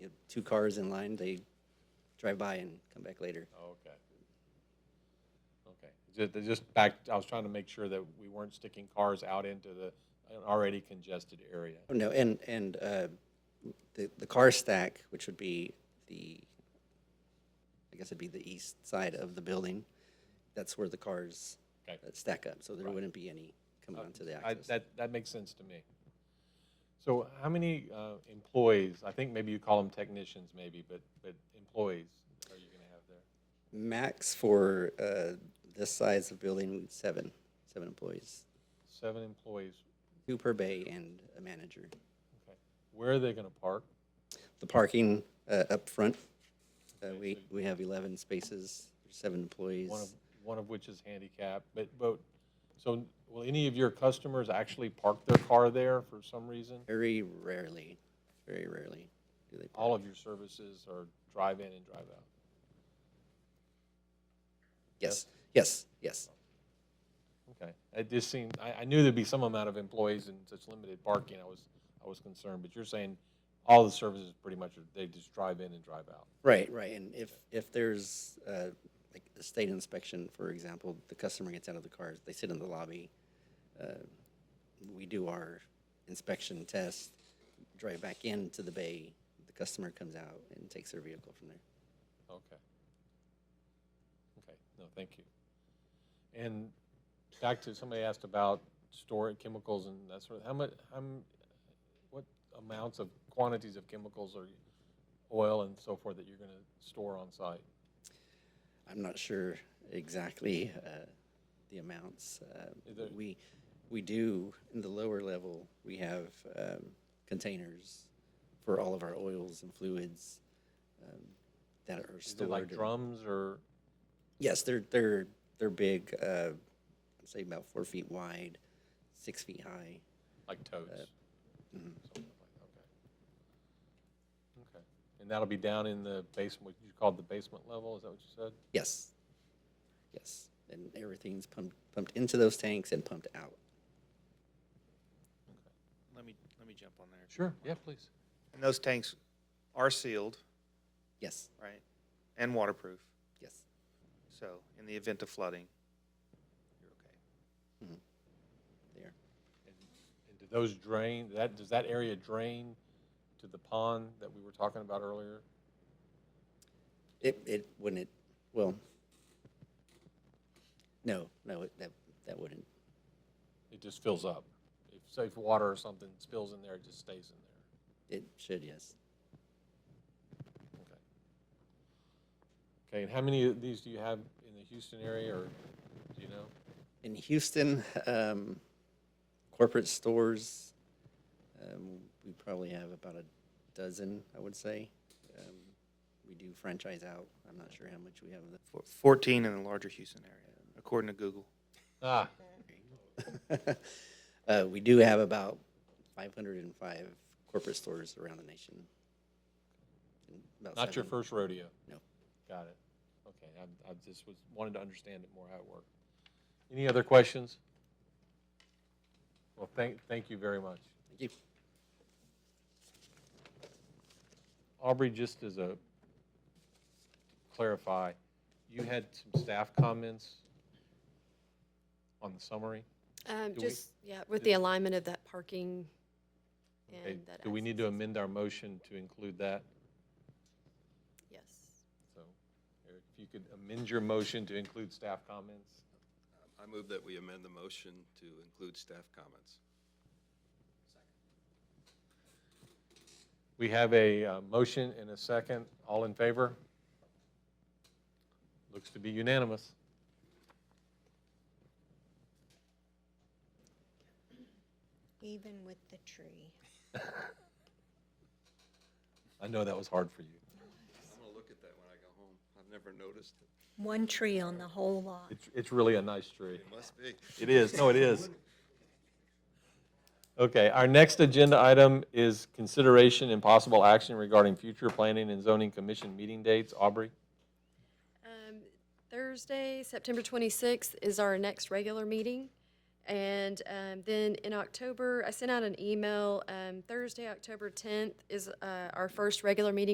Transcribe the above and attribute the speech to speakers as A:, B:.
A: the two cars in line, they drive by and come back later.
B: Okay. Okay, Ju- th- just back, I was trying to make sure that we weren't sticking cars out into the an already congested area.
A: Oh, no, and, and uh, the, the car stack, which would be the, I guess it'd be the east side of the building, that's where the cars
B: Okay.
A: uh, stack up, so there wouldn't be any coming onto the
B: I,
A: access.
B: that, that makes sense to me. So how many uh, employees, I think maybe you call them technicians maybe, but, but employees are you going to have there?
A: Max for uh, this size of building, seven, seven employees,
B: Seven employees,
A: two per bay and a manager.
B: okay. Where are they going to park?
A: The parking uh, up front, uh, we, we have 11 spaces, seven employees.
B: One of, one of which is handicapped, but, but, so will any of your customers actually park their car there for some reason?
A: Very rarely, very rarely do they park.
B: all of your services are drive-in and drive-out.
A: Yes, yes, yes.
B: Okay, it just seemed, I, I knew there'd be some amount of employees and such limited parking, I was, I was concerned, but you're saying all the services pretty much, are they just drive in and drive out?
A: Right, right. And if, if there's, uh, like a state inspection, for example, the customer gets out of the car, they sit in the lobby. uh, We do our inspection test, drive back into the bay, the customer comes out and takes their vehicle from there.
B: Okay. Okay, no, thank you. And back to, somebody asked about storing chemicals and that sort of, how much, how, m- what amounts of quantities of chemicals or oil and so forth that you're gonna store on site?
A: I'm not sure exactly uh, the amounts. uh,
B: Is there-
A: We, we do, in the lower level, we have um, containers for all of our oils and fluids um, that are
B: Is it like
A: stored.
B: drums or?
A: Yes, they're, they're, they're big, uh, I'd say about four feet wide, six feet high.
B: Like toads? Something like that, Okay. Okay. And that'll be down in the basement, what you called the basement level, is that what you said?
A: Yes, yes. And everything's pumped, pumped into those tanks and pumped out.
C: Let me, let me jump on there.
B: Sure, yeah, please.
C: And those tanks are sealed,
A: Yes,
C: right, and waterproof,
A: yes.
C: so in the event of flooding, you're okay.
A: There.
B: And do those drain, that, does that area drain to the pond that we were talking about earlier?
A: It, it, wouldn't it, well, no, no, it- that, that wouldn't.
B: It just fills up? If, say, if water or something spills in there, it just stays in there?
A: It should, yes.
B: Okay. Okay, and how many of these do you have in the Houston area, or do you know?
A: In Houston, um, corporate stores, um, we probably have about a dozen, I would say. Um, we do franchise out. I'm not sure how much we have of
C: Four- Fourteen in the larger Houston area, according to Google.
B: Ah,
A: that. Uh, we do have about five hundred and five corporate stores around the nation. And about
B: Not your
A: 700
B: first rodeo?
A: No.
B: Got it. Okay, I, I just was, wanted to understand it more how it worked. Any other questions? Well, thank, thank you very much.
A: Thank you.
B: Aubrey, just as a clarify, you had some staff comments on the summary?
D: Um,
B: Do we-
D: just, yeah, with the alignment of that parking
B: Okay,
D: and that.
B: Do we need to
D: access.
B: amend our motion to include that?
D: Yes.
B: So, Eric, if you could amend your motion to include staff comments?
E: I move that we amend the motion to include staff comments.
B: We have a uh, motion and a second. All in favor? Looks to be unanimous.
F: Even with the tree.
B: I know that was hard for you.
E: I'm gonna look at that when I go home. I've never noticed it.
F: One tree on the whole lot.
B: It's, it's really a nice tree.
E: It must be.
B: It is, no, it is. Okay, our next agenda item is consideration and possible action regarding future planning and zoning commission meeting dates. Aubrey?
D: Um, Thursday, September twenty-sixth is our next regular meeting. And, um, then in October, I sent out an email, um, Thursday, October tenth is, uh, our first regular meeting